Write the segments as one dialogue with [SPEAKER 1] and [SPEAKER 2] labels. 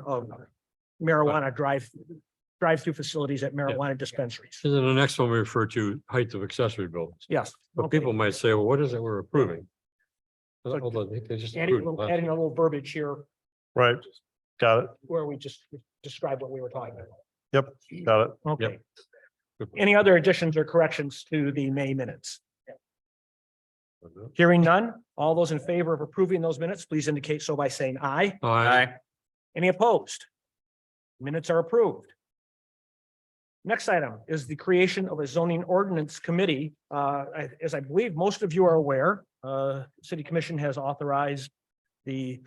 [SPEAKER 1] of marijuana drive, drive-through facilities at marijuana dispensaries.
[SPEAKER 2] And then the next one we refer to height of accessory buildings.
[SPEAKER 1] Yes.
[SPEAKER 2] But
[SPEAKER 1] okay.
[SPEAKER 2] people might say, well, what is it we're approving?
[SPEAKER 1] But-
[SPEAKER 2] Hold on, they just.
[SPEAKER 1] Adding, a
[SPEAKER 2] approved it
[SPEAKER 1] little-
[SPEAKER 2] last-
[SPEAKER 1] adding a little verbiage here
[SPEAKER 3] Right, got it,
[SPEAKER 1] where we just describe what we were talking about.
[SPEAKER 3] got it.
[SPEAKER 1] Okay. Any other additions or corrections to the May minutes? Hearing none, all those in favor of approving those minutes, please indicate so by saying aye.
[SPEAKER 2] Aye.
[SPEAKER 1] Any opposed? Minutes are approved. Next item is the creation of a zoning ordinance committee. Uh, I- as I believe most of you are aware, uh, city commission has authorized the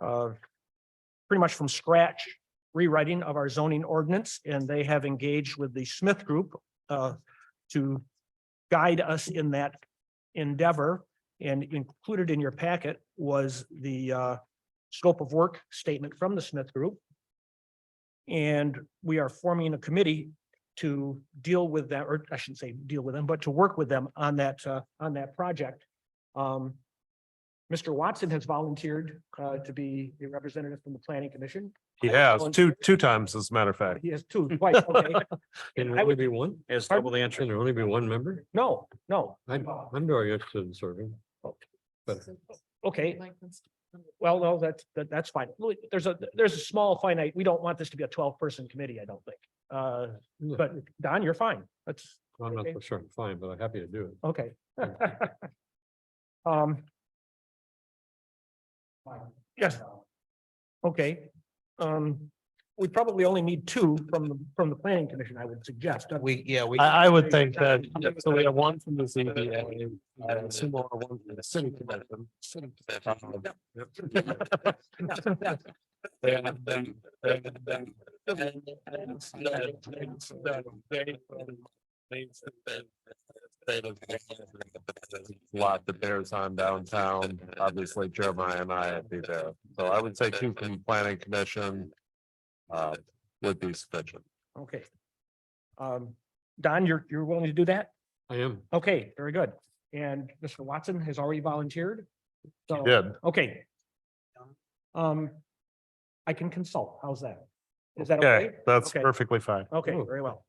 [SPEAKER 1] uh, pretty much from scratch rewriting of our zoning ordinance, and they have engaged with the Smith Group uh, to guide us in that endeavor. And included in your packet was the uh, scope of work statement from the Smith Group. And we are forming a committee to deal with that, or I shouldn't say deal with them, but to work with them on that, uh, on that project. Um, Mr. Watson has volunteered, uh, to be a representative from the planning commission.
[SPEAKER 3] He has two, two times, as a matter of fact.
[SPEAKER 1] He has two, twice, okay.
[SPEAKER 2] Can there
[SPEAKER 1] I
[SPEAKER 2] only
[SPEAKER 1] would-
[SPEAKER 2] be one?
[SPEAKER 4] It's
[SPEAKER 1] Pardon?
[SPEAKER 4] double the
[SPEAKER 2] Can
[SPEAKER 4] entry.
[SPEAKER 2] there only be one member?
[SPEAKER 1] No, no,
[SPEAKER 2] I'm, I'm very interested in serving.
[SPEAKER 1] okay, well, no, that's, that, that's fine. Look, There's a, there's a small finite, we don't want this to be a twelve-person committee, I don't think. Uh,
[SPEAKER 2] No,
[SPEAKER 1] but Don, you're fine. That's,
[SPEAKER 2] I'm not
[SPEAKER 1] okay.
[SPEAKER 2] so sure I'm fine, but I'm happy to do it.
[SPEAKER 1] Okay. Um. Yes. Okay, um, we probably only need two from, the from the planning commission, I would suggest.
[SPEAKER 5] We, yeah, we.
[SPEAKER 3] I, I would think that,
[SPEAKER 5] So we have one from the ZBA and similar one from the city commission. Um, then- then- then- then- then- then- then- then- then- Lot that bears on downtown, obviously Jeremiah and I would be there, so I would say two from planning commission. Uh, would be sufficient.
[SPEAKER 1] Okay. Um, Don, you're, you're willing to do that?
[SPEAKER 2] I am.
[SPEAKER 1] Okay, very good. And Mr. Watson has already volunteered. So,
[SPEAKER 3] Did,
[SPEAKER 1] okay. Um, I can consult. How's that? Is that
[SPEAKER 3] okay,
[SPEAKER 1] okay?
[SPEAKER 3] that's
[SPEAKER 1] Okay.
[SPEAKER 3] perfectly fine.
[SPEAKER 1] Okay,
[SPEAKER 2] Oh.
[SPEAKER 1] very well.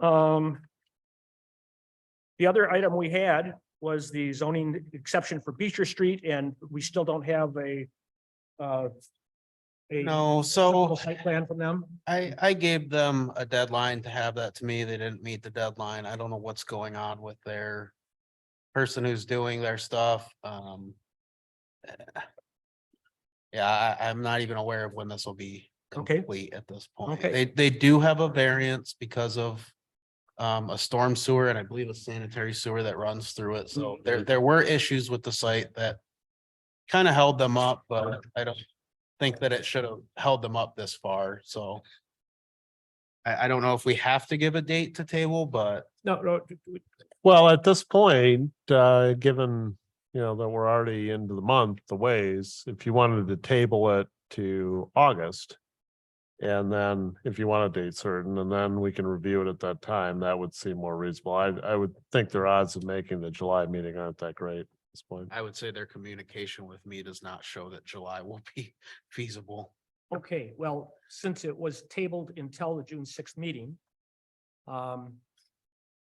[SPEAKER 1] Um. The other item we had was the zoning exception for Beecher Street, and we still don't have a. uh, a
[SPEAKER 5] No,
[SPEAKER 1] typical
[SPEAKER 5] so
[SPEAKER 1] Site plan from them.
[SPEAKER 5] I, I gave them a deadline to have that to me. They didn't meet the deadline. I don't know what's going on with their person who's doing their stuff. Um. eh. Yeah, I, I'm not even aware of when this will be
[SPEAKER 1] Okay.
[SPEAKER 5] complete at this point.
[SPEAKER 1] Okay.
[SPEAKER 5] They, they do have a variance because of um, a storm sewer and I believe a sanitary sewer that runs through it. So there, there were issues with the site that kind of held them up, but I don't think that it should have held them up this far. So I, I don't know if we have to give a date to table, but
[SPEAKER 1] No, no, d- d-
[SPEAKER 3] Well, at this point, uh, given, you know, that we're already into the month, the ways, if you wanted to table it to August. And then if you want a date certain, and then we can review it at that time, that would seem more reasonable. I, I would think their odds of making the July meeting aren't that great at this point.
[SPEAKER 5] I would say their communication with me does not show that July will be feasible.
[SPEAKER 1] okay, well, since it was tabled until the June sixth meeting. Um.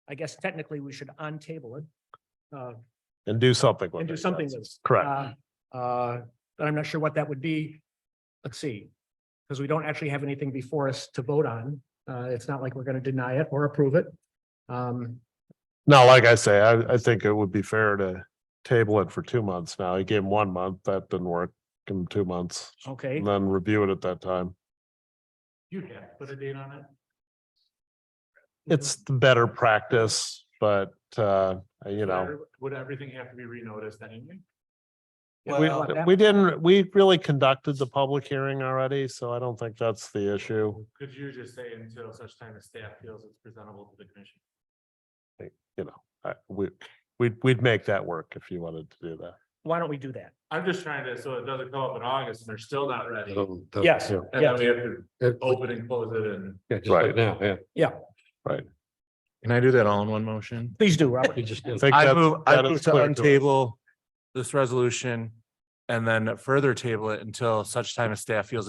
[SPEAKER 1] I guess technically we should untable it. Uh,
[SPEAKER 3] And do something with it.
[SPEAKER 1] and do something
[SPEAKER 3] yes.
[SPEAKER 1] with. it.
[SPEAKER 3] Correct.
[SPEAKER 1] Uh, uh, But I'm not sure what that would be. Let's see. Because we don't actually have anything before us to vote on. Uh, It's not like we're going to deny it or approve it. Um,
[SPEAKER 3] No, like I say, I, I think it would be fair to table it for two months now. He gave him one month, that didn't work. Give him two months,
[SPEAKER 1] Okay.
[SPEAKER 3] and then review it at that time.
[SPEAKER 1] You can put a date on it.
[SPEAKER 3] It's the better practice, but, uh, you know,
[SPEAKER 6] Would everything have to be renoticed anyway?
[SPEAKER 3] we,
[SPEAKER 5] Well,
[SPEAKER 1] that-
[SPEAKER 3] we didn't, we really conducted the public hearing already, so I don't think that's the issue.
[SPEAKER 6] Could you just say until such time as staff feels it's presentable to the commission?
[SPEAKER 3] I, we, we'd, we'd make that work if you wanted to do that.
[SPEAKER 1] Why don't we do that?
[SPEAKER 6] I'm just trying to, so it doesn't come up in August and they're still not ready. And
[SPEAKER 2] Um, that-
[SPEAKER 1] Yes,
[SPEAKER 2] yeah.
[SPEAKER 6] then we have to
[SPEAKER 2] It-
[SPEAKER 6] open and close it and.
[SPEAKER 2] Oh, Yeah, just like
[SPEAKER 3] Right.
[SPEAKER 2] now, yeah.
[SPEAKER 6] Can I do that all in one motion?
[SPEAKER 1] Please do, Robert.
[SPEAKER 2] You just-
[SPEAKER 3] I think
[SPEAKER 6] I
[SPEAKER 3] that's-
[SPEAKER 6] move, I
[SPEAKER 3] that is
[SPEAKER 6] move to
[SPEAKER 3] clear to us.
[SPEAKER 6] untable this resolution And then further table it until such time as staff feels